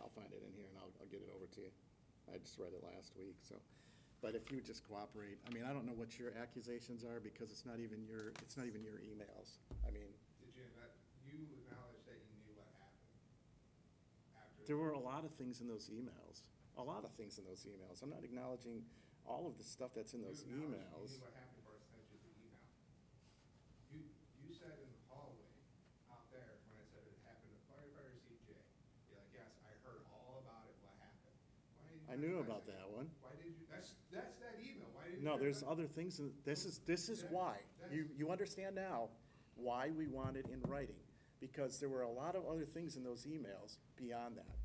I'll find it in here and I'll, I'll get it over to you. I just read it last week, so. But if you just cooperate, I mean, I don't know what your accusations are because it's not even your, it's not even your emails. I mean, Did you, admit- you acknowledge that you knew what happened after? There were a lot of things in those emails, a lot of things in those emails. I'm not acknowledging all of the stuff that's in You those acknowledged You emails. knew what happened before I sent you the email. You, you said in the hallway out there, when I said it happened to firefighter CJ, you're like, yes, I heard all about it, what happened. Why didn't you I knew about acknowledge that one. Why did you, that's, that's that email, why didn't you? No, there's acknowledge- other things, in- this is, this is why. You, you understand now why we want it in writing, because there were a lot of other things in those emails beyond that.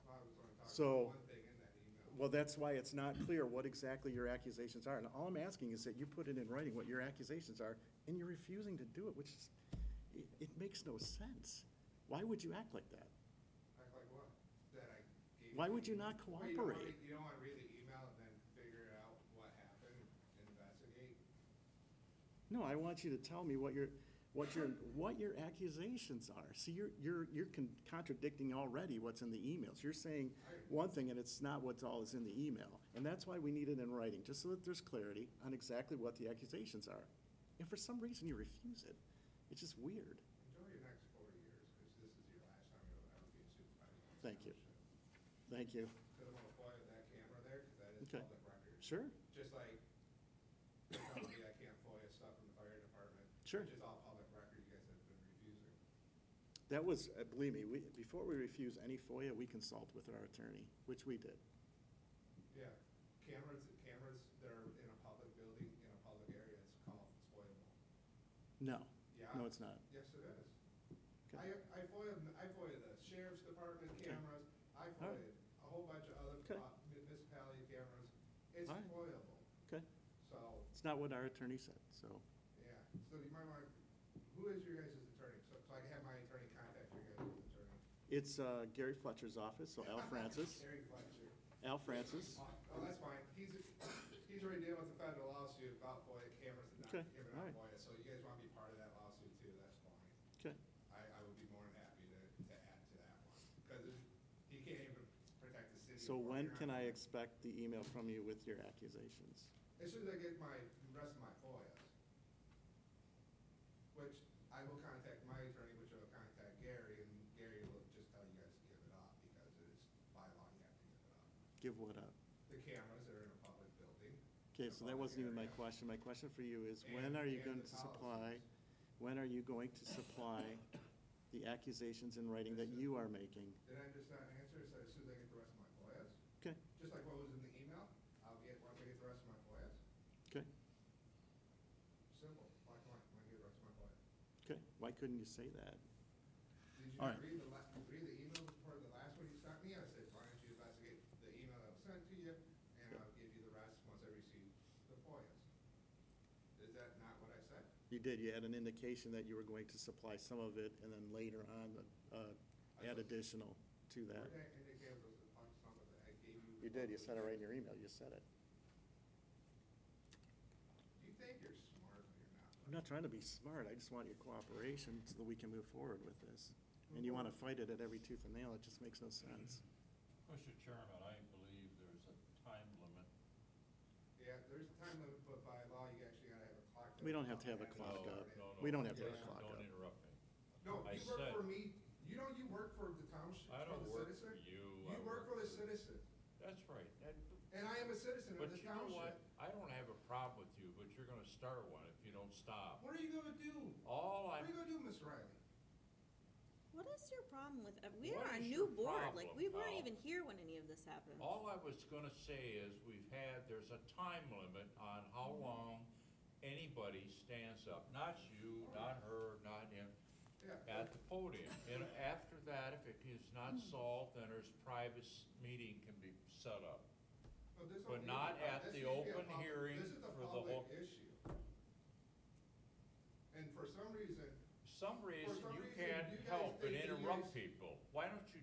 Well, I was only talking about So- One thing in that email. Well, that's why it's not clear what exactly your accusations are. And all I'm asking is that you put it in writing what your accusations are, and you're refusing to do it, which is, it, it makes no sense. Why would you act like that? Act like what? That I gave Why you would you the email? not Well, you don't wanna- cooperate? You don't wanna read the email and then figure out what happened, investigate? No, I want you to tell me what your, what your, what your accusations are. See, you're, you're, you're con- contradicting already what's in the emails. You're saying one thing and it's not what's all is in the email. And that's why we need it in writing, just so that there's clarity on exactly what the accusations are. And for some reason, you refuse it. It's just weird. Enjoy your next four years, because this is your last time you'll ever be a supervisor. in this Thank you. township. Thank you. Could have applied that camera there, because that is Okay. public record. Sure, Just like, they tell me I can't FOIA stuff from the fire department. sure. Which is all public record, you guys have been refusing. That was, uh, believe me, we, before we refuse any FOIA, we consult with our attorney, which we did. Yeah, cameras, cameras that are in a public building, in a public area, it's called FOIAable. No, Yeah, no, it's not. Yes, it is. Okay. I, I FOIA, I FOIA the sheriff's department Okay. cameras, I right. FOIA a whole bunch of other Okay. uh, municipality cameras. It's All right. FOIAble, Okay, so, it's not what our attorney said, so. yeah, so you might want, who is your guys' attorney? So, so I can have my attorney contact your guys' attorney. It's uh, Gary Fletcher's office, so Al Francis, Terry Fletcher. Al Francis. Oh, oh, that's fine, he's, he's already dealing with the federal lawsuit about FOIA cameras and not Okay, giving all out right. FOIA, so you guys wanna be part of that lawsuit too, that's fine. Okay, I, I would be more than happy to, to add to that one, because he can't even protect the city. so if when you're can not- I expect the email from you with your accusations? As soon as I get my, the rest of my FOIAs, which I will contact my attorney, which will contact Gary, and Gary will just tell you guys to give it up, because it is by law, you have to give it up. Give what up? The cameras are in a public building. Okay, so that wasn't even my question. My question for you is, when and- are you and going the to supply, policies. when are you going to supply the accusations in writing that you are making? Did I just not answer, so as soon as I get the rest of my FOIAs? Okay, Just like what was in the email, I'll get, once I get the rest of my FOIAs, okay, simple, black and white, when I get the rest of my FOIAs. okay. Why couldn't you say that? Did you All right. read the last, read the email before the last one you sent me? I said, why don't you investigate the email that was sent to you, and I'll give you the rest once I receive the FOIAs. Is that not what I said? You did, you had an indication that you were going to supply some of it and then later on, uh, add additional to that. Where did I indicate was the punch some of that I gave you? You did, you said it right in your email, you said it. You think you're smart, but you're not. I'm not trying to be smart, I just want your cooperation so that we can move forward with this. And you want to fight it at every tooth and nail, it just makes no sense. Mr. Chairman, I believe there's a time limit. Yeah, there's a time limit, but by law, you actually gotta have a clock. We don't have to have a Yeah. Clock No, up. no, no, We don't have to have please clock up. Don't interrupt me. No, I you work said- for me, you know, you work for the township, I for don't the work for citizen. you. You I work for the citizen, That's right. That- and I am a citizen But of the you know township. what? I don't have a problem with you, but you're gonna start one if you don't stop. What are you gonna do? All What are I, you gonna do, Miss Riley? What is your problem with, ev- we What are a is new your board, problem, like, we weren't pal? even here when any of this happened. all I was gonna say is we've had, there's a time limit on how Mm-hmm. long anybody stands up. Not you, not her, not him, Yeah. at the podium. And after that, if it is not Hmm. solved, then there's private s- meeting can be set up. Well, this but don't need to not be a- at this needs to be the a open public- hearing This is a for the public whole- issue. And for some reason, some reason some you reason, can't you guys help but think that you interrupt guys- people. Why don't you